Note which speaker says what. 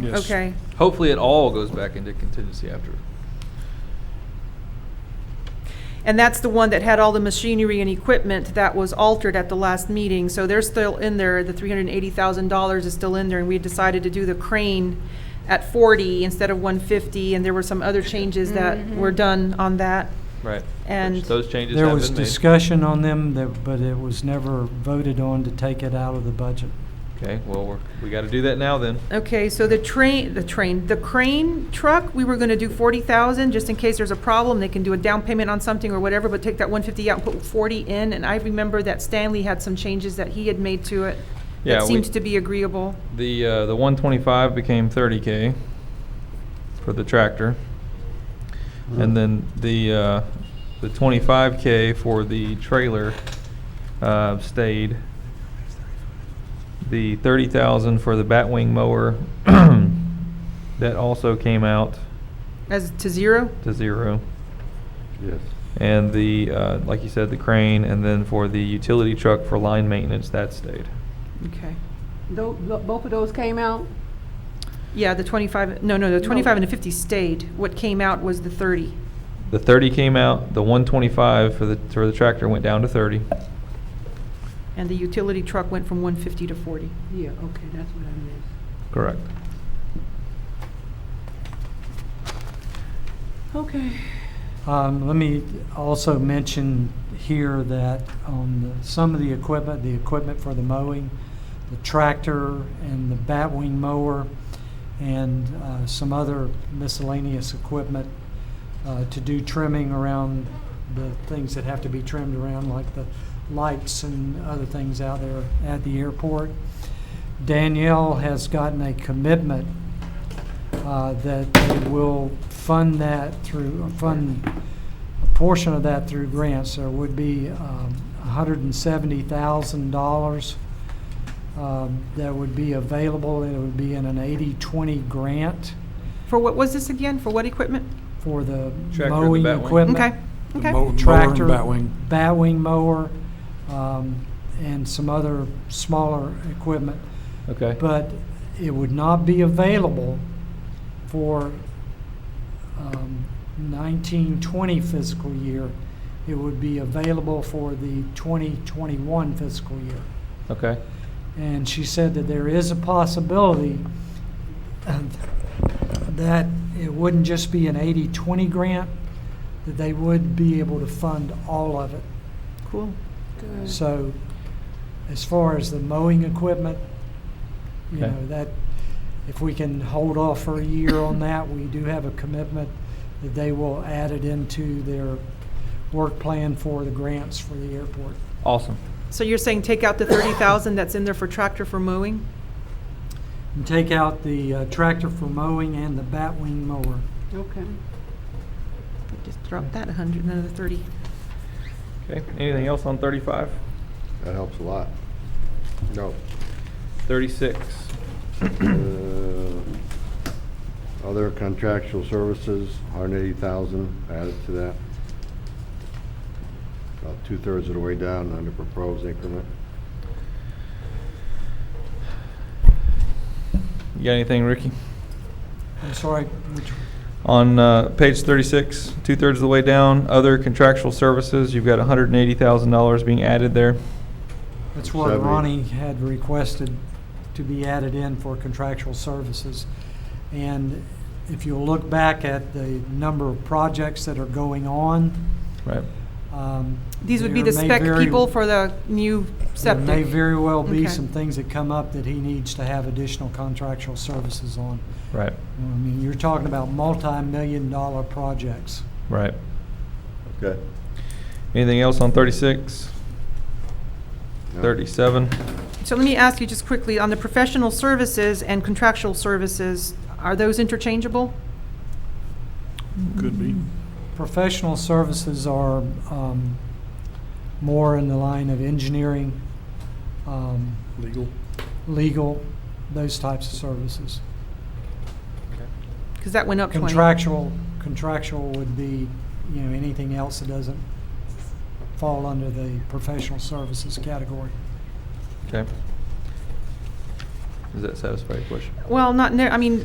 Speaker 1: Yes.
Speaker 2: Okay.
Speaker 3: Hopefully it all goes back into contingency after.
Speaker 2: And that's the one that had all the machinery and equipment that was altered at the last meeting. So they're still in there, the three hundred and eighty thousand dollars is still in there, and we decided to do the crane at forty instead of one fifty, and there were some other changes that were done on that.
Speaker 3: Right.
Speaker 2: And-
Speaker 3: Which Those changes
Speaker 1: There
Speaker 3: have
Speaker 1: was
Speaker 3: been made.
Speaker 1: discussion on them, that- but it was never voted on to take it out of the budget.
Speaker 3: Okay, well, we're, we gotta do that now then.
Speaker 2: Okay, so the train, the train, the crane truck, we were gonna do forty thousand, just in case there's a problem, they can do a down payment on something or whatever, but take that one fifty out and put forty in, and I remember that Stanley had some changes that he had made to it
Speaker 3: Yeah,
Speaker 2: that
Speaker 3: we-
Speaker 2: seemed to be agreeable.
Speaker 3: The, uh, the one twenty-five became thirty K for the tractor.
Speaker 1: Mm-hmm.
Speaker 3: And then the, uh, the twenty-five K for the trailer, uh, stayed. The thirty thousand for the batwing mower, that also came out
Speaker 2: As to zero?
Speaker 3: to zero.
Speaker 4: Yes.
Speaker 3: And the, uh, like you said, the crane, and then for the utility truck for line maintenance, that stayed.
Speaker 2: Okay.
Speaker 5: Tho- tho- Both of those came out?
Speaker 2: Yeah, the twenty-five, no, no, the twenty-five and the fifty stayed. What came out was the thirty.
Speaker 3: The thirty came out, the one twenty-five for the, for the tractor went down to thirty.
Speaker 2: And the utility truck went from one fifty to forty.
Speaker 5: Yeah, okay, that's what I missed.
Speaker 3: Correct.
Speaker 5: Okay.
Speaker 1: Um, Let me also mention here that on the- some of the equipment, the equipment for the mowing, the tractor and the batwing mower, and uh, some other miscellaneous equipment uh, to do trimming around the things that have to be trimmed around, like the lights and other things out there at the airport. Danielle has gotten a commitment uh, that they will fund that through, fund a portion of that through grants. There would be um, $170,000 um, that would be available, and it would be in an 80-20 grant
Speaker 2: For what was this again? For what equipment?
Speaker 1: for the
Speaker 3: Tractor and the
Speaker 1: mowing
Speaker 3: Batwing.
Speaker 1: equipment.
Speaker 2: Okay,
Speaker 4: The mow- mower
Speaker 2: okay.
Speaker 4: and
Speaker 1: Tractor,
Speaker 4: batwing.
Speaker 1: batwing mower, um, and some other smaller equipment.
Speaker 3: Okay.
Speaker 1: But it would not be available for um, 1920 fiscal year. It would be available for the 2021 fiscal year.
Speaker 3: Okay,
Speaker 1: And she said that there is a possibility um, that it wouldn't just be an 80-20 grant, that they would be able to fund all of it.
Speaker 2: Cool.
Speaker 5: Good.
Speaker 1: So as far as the mowing equipment, you
Speaker 3: Okay.
Speaker 1: know, that, if we can hold off for a year on that, we do have a commitment that they will add it into their work plan for the grants for the airport.
Speaker 3: awesome.
Speaker 2: So you're saying take out the thirty thousand that's in there for tractor for mowing?
Speaker 1: And take out the uh, tractor for mowing and the batwing mower.
Speaker 5: Okay.
Speaker 2: Just drop that a hundred, another thirty.
Speaker 3: Okay, anything else on thirty-five?
Speaker 4: That helps a lot. No.
Speaker 3: Thirty-six.
Speaker 4: Uh, Other contractual services, hundred eighty thousand added to that. About two-thirds of the way down under proposed increment.
Speaker 3: You got anything, Ricky?
Speaker 1: I'm sorry, which,
Speaker 3: On, uh, page thirty-six, two-thirds of the way down, other contractual services, you've got hundred and eighty thousand dollars being added there.
Speaker 1: that's what
Speaker 4: Seventy.
Speaker 1: Ronnie had requested to be added in for contractual services. And if you'll look back at the number of projects that are going on,
Speaker 3: Right,
Speaker 1: Um,
Speaker 2: These would be
Speaker 1: there
Speaker 2: the
Speaker 1: may
Speaker 2: spec
Speaker 1: very-
Speaker 2: people for the new septic.
Speaker 1: There may very well be
Speaker 2: Okay.
Speaker 1: some things that come up that he needs to have additional contractual services on.
Speaker 3: right,
Speaker 1: I mean, you're talking about multi-million dollar projects.
Speaker 3: right.
Speaker 4: Okay.
Speaker 3: Anything else on thirty-six? Thirty-seven?
Speaker 2: So let me ask you just quickly, on the professional services and contractual services, are those interchangeable?
Speaker 6: Could be.
Speaker 1: Professional services are um, more in the line of engineering, um,
Speaker 6: Legal.
Speaker 1: legal, those types of services.
Speaker 2: Because that went up twenty.
Speaker 1: Contractual, contractual would be, you know, anything else that doesn't fall under the professional services category.
Speaker 3: Okay. Does that satisfy your question?
Speaker 2: Well, not, ne- I mean,